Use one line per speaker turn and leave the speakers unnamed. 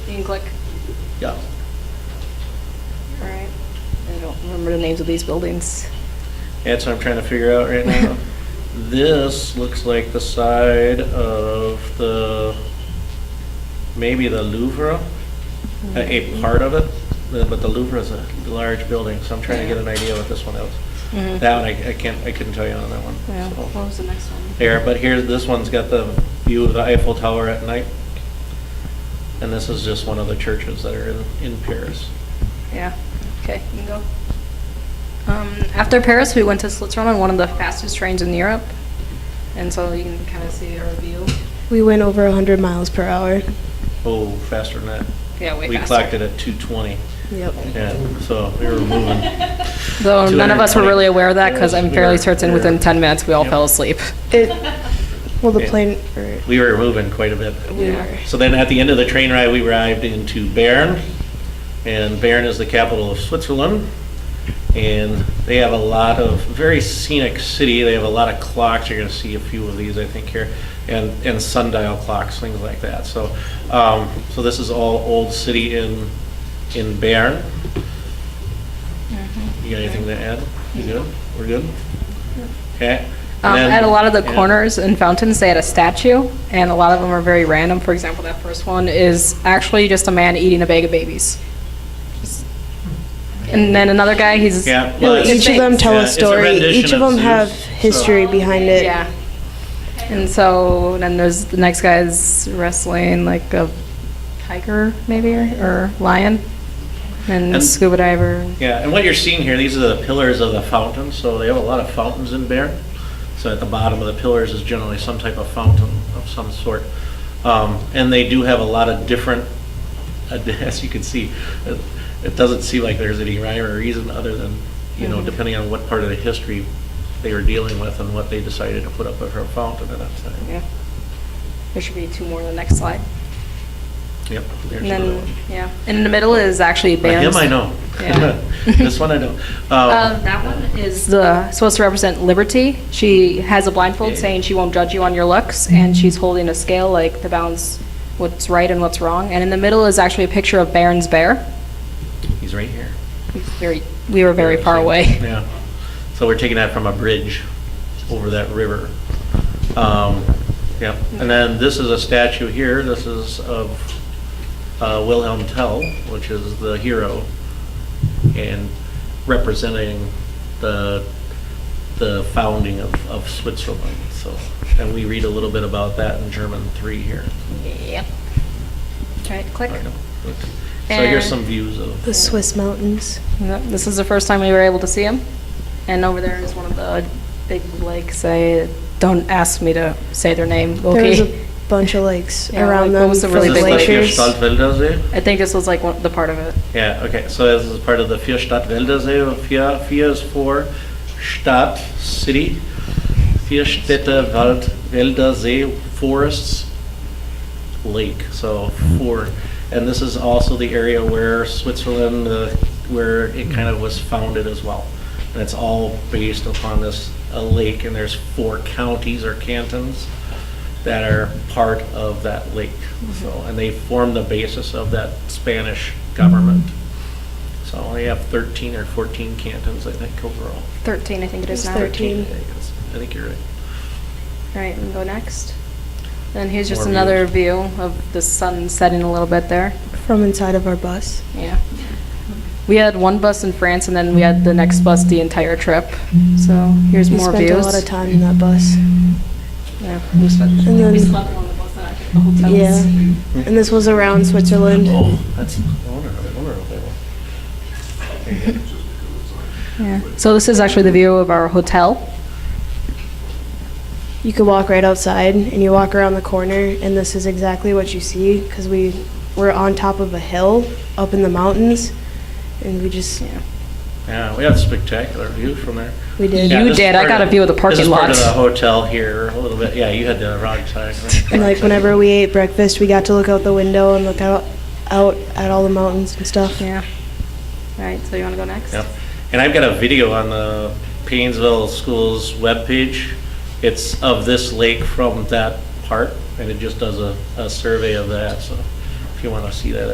You can click.
Yeah.
All right. I don't remember the names of these buildings.
That's what I'm trying to figure out right now. This looks like the side of the, maybe the Louvre, a- a part of it, the- but the Louvre is a large building, so I'm trying to get an idea what this one is.
Mhm.
That one, I I can't, I couldn't tell you on that
Yeah,
one.
what
so.
was the next one?
There, but here, this one's got the view of the Eiffel Tower at night. And this is just one of the churches that are in, in Paris.
Yeah, okay, you can go. Um, after Paris, we went to Switzerland on one of the fastest trains in Europe. And so you can kind of see our view.
We went over 100 miles per hour.
Oh, faster than that.
Yeah, way
We
faster.
clocked it at 220.
Yep.
Yeah, so we were moving.
Though none of us were
220.
really aware of that because I'm
We
fairly
were-
certain
we were-
within 10 minutes we all
Yep.
fell asleep.
It, well, the
Yeah.
plane, or,
We were moving quite a bit.
We Yeah. were.
So then at the end of the train ride, we arrived into Bern, and Bern is the capital of Switzerland. And they have a lot of, very scenic city, they have a lot of clocks, you're gonna see a few of these, I think, here, and, and sundial clocks, things like that. So, um, so this is all old city in, in Bern.
Mm-hmm.
You got anything to add? You good? We're good? Okay.
Um, at a lot of the
corners.
corners and fountains, they had a statue, and a lot of them are very random. For example, that first one is actually just a man eating a bag of babies. Just- And then another guy, he's
Yeah, well,
no,
it's-
each of them tell
Yeah,
a
it's a
story.
rendition
Each of
of
them have
Zeus, so-
history behind it.
Oh. Yeah. And so then there's the next guy's wrestling like a tiger maybe or, or lion, and,
And-
scuba diver.
Yeah, and what you're seeing here, these are the pillars of the fountain, so they have a lot of fountains in Bern. So at the bottom of the pillars is generally some type of fountain of some sort. Um, And they do have a lot of different, as you can see, it- it doesn't seem like there's any rhyme or reason other than, you know,
Mhm.
depending on what part of the history they were dealing with and what they decided to put up for a fountain at that time.
Yeah. There should be two more on the next slide.
Yep. there's
And
another
then
one.
yeah, and in the middle is actually
Now,
bands.
Him I know.
Yeah.
This one I know. Um,
Uh, that one is the, supposed to represent liberty. She has a blindfold saying she won't judge you on your looks, and she's holding a scale like to balance what's right and what's wrong. And in the middle is actually a picture of Baron's bear.
He's right here.
We Very, we were very far away.
Yeah. So we're taking that from a bridge over that river. Um, Yep. And then this is a statue here. This is of uh, Wilhelm Tell, which is the hero and representing the, the founding of of Switzerland. So, and we read a little bit about that in German 3 here.
Yep. Try it, click.
So
And-
here's some views of.
The Swiss mountains.
Yep, This is the first time we were able to see him. And over there is one of the big lakes. I, don't ask me to say their name,
There was
okay?
a bunch of lakes
Yeah, like,
around
what
them.
was the
from
really
Is
big
this like your
glaciers.
Stadtwälder See?
I think this was like one, the part of it.
Yeah, okay, so this is part of the vier Stadtwäldersee, vier, vier is for Stadt, city, vier Städte, Wald, Wälder, See, forests, lake, so four. And this is also the area where Switzerland, uh, where it kind of was founded as well. And it's all based upon this, a lake, and there's four counties or cantons that are part of that lake. So, and they form the basis of that Spanish government. So they have 13 or 14 cantons, I think, overall.
13, I think it is
It's
now.
13.
I think it's- I think you're right.
Right, and go next. Then here's just
More
another view of the sun setting a little bit there.
From inside of our bus.
Yeah. We had one bus in France, and then we had the next bus the entire trip. So here's
we
more
spent
views.
a lot of time in that bus.
Yeah, we spent-
And then-
we slept on the bus and I took the hotels.
Yeah. And this was around Switzerland.
Oh, that's, I wonder, I wonder if they will.
Yeah. So this is actually the view of our hotel.
You could walk right outside and you walk around the corner, and this is exactly what you see because we were on top of a hill up in the mountains, and we just
Yeah.
Yeah, we had spectacular view from there.
we did.
Yeah,
You
this is
did. I
part
got
of-
a view of the parking lot.
This is part of the hotel here, a little bit, yeah, you had the wrong side. right?
And like whenever we ate breakfast, we got to look out the window and look out out at all the mountains and stuff.
Yeah. All right, so you want to go next?
Yeah, and I've got a video on the Painesville Schools webpage. It's of this lake from that part, and it just does a, a survey of that, so if you want to see that,